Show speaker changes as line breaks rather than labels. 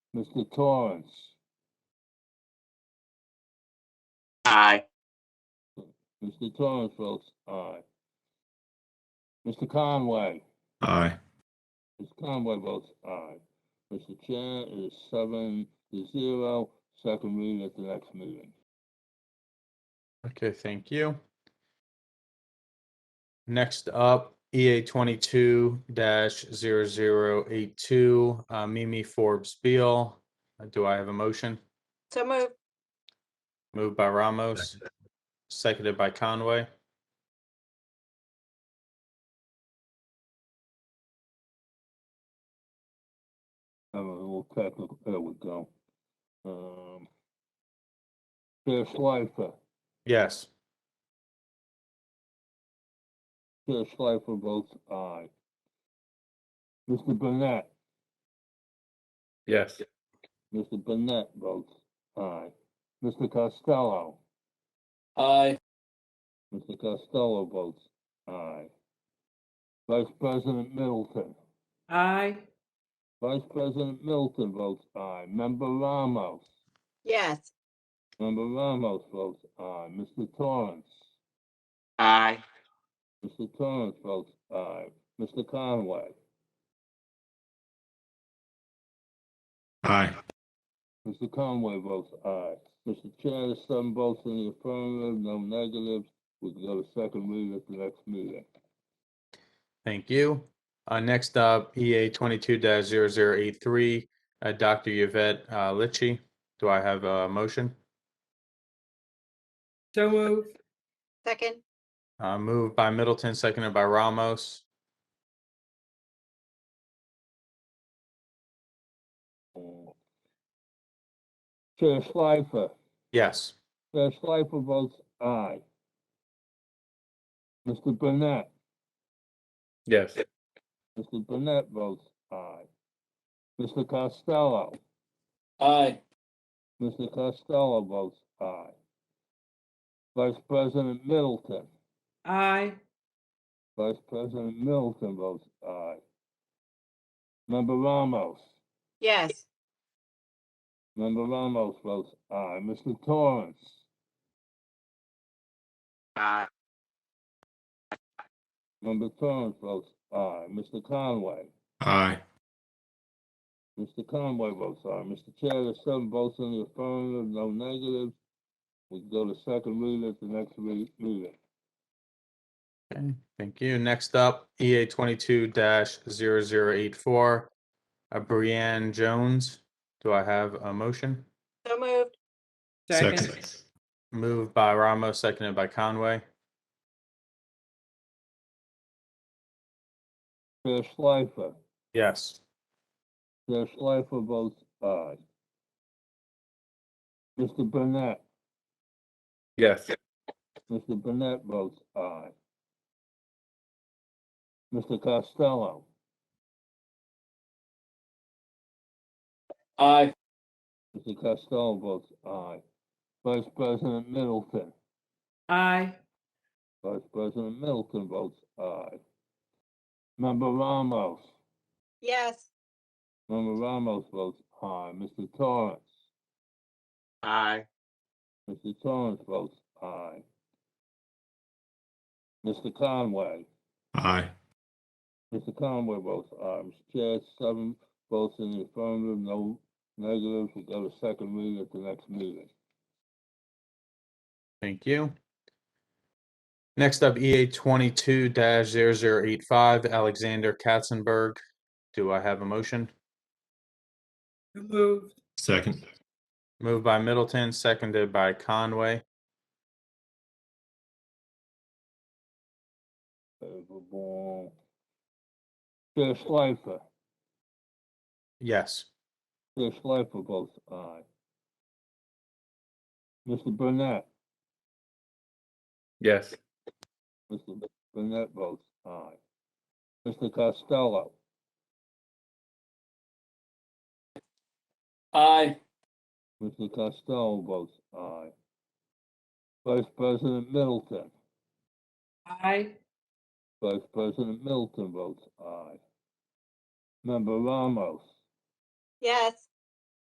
Mr. Torrance,
Aye.
Mr. Torrance votes aye. Mr. Conway,
Aye.
Mr. Conway votes aye. Mr. Chair, it is seven to zero. Second reading at the next meeting.
Okay, thank you. Next up, EA twenty-two 82 uh, Mimi Forbes Beal. Uh, Do I have a motion?
So move.
Moved by Ramos, seconded by Conway.
I'm a little technical, there we go. Um, Chair Schleifer,
Yes.
Chair Schleifer votes aye. Mr. Burnett,
Yes.
Mr. Burnett votes aye. Mr. Costello,
Aye.
Mr. Costello votes aye. Vice President Middleton,
aye,
Vice President Middleton votes aye. Member Ramos,
Yes.
Member Ramos votes aye. Mr. Torrance,
Aye.
Mr. Torrance votes aye. Mr. Conway,
Aye.
Mr. Conway votes aye. Mr. Chair, the seven votes in the affirmative, no negatives. We can go to second reading at the next meeting.
Thank you. Uh, next up, EA twenty-two 83 uh, Dr. Yvette, uh, Litchi. Do I have a motion?
so move,
Second.
Uh, moved by Middleton, seconded by Ramos.
Uh, Chair Schleifer,
Yes.
Chair Schleifer votes aye. Mr. Burnett,
Yes.
Mr. Burnett votes aye. Mr. Costello,
Aye.
Mr. Costello votes aye. Vice President Middleton,
aye,
Vice President Middleton votes aye. Member Ramos,
Yes.
Member Ramos votes aye. Mr. Torrance,
Aye.
Member Torrance votes aye. Mr. Conway,
Aye.
Mr. Conway votes aye. Mr. Chair, there's seven votes in the affirmative, no negatives. We can go to second reading at the next re- meeting.
Okay, thank you. Next up, EA twenty-two 84 uh, Brianne Jones. Do I have a motion?
So moved.
second,
Moved by Ramos, seconded by Conway.
Chair Schleifer,
Yes.
Chair Schleifer votes aye. Mr. Burnett,
Yes.
Mr. Burnett votes aye. Mr. Costello,
Aye.
Mr. Costello votes aye. Vice President Middleton,
aye,
Vice President Middleton votes aye. Member Ramos,
Yes.
Member Ramos votes aye. Mr. Torrance,
Aye.
Mr. Torrance votes aye. Mr. Conway,
Aye.
Mr. Conway votes aye. Mr. Chair, seven votes in the affirmative, no negatives. We'll go to second reading at the next meeting.
Thank you. Next up, EA twenty-two 85 Alexander Katzenberg. Do I have a motion?
so moved,
Second,
Moved by Middleton, seconded by Conway.
Favorable. Chair Schleifer,
Yes.
Chair Schleifer votes aye. Mr. Burnett,
Yes.
Mr. Burnett votes aye. Mr. Costello,
Aye.
Mr. Costello votes aye. Vice President Middleton,
aye,
Vice President Middleton votes aye. Member Ramos,
Yes.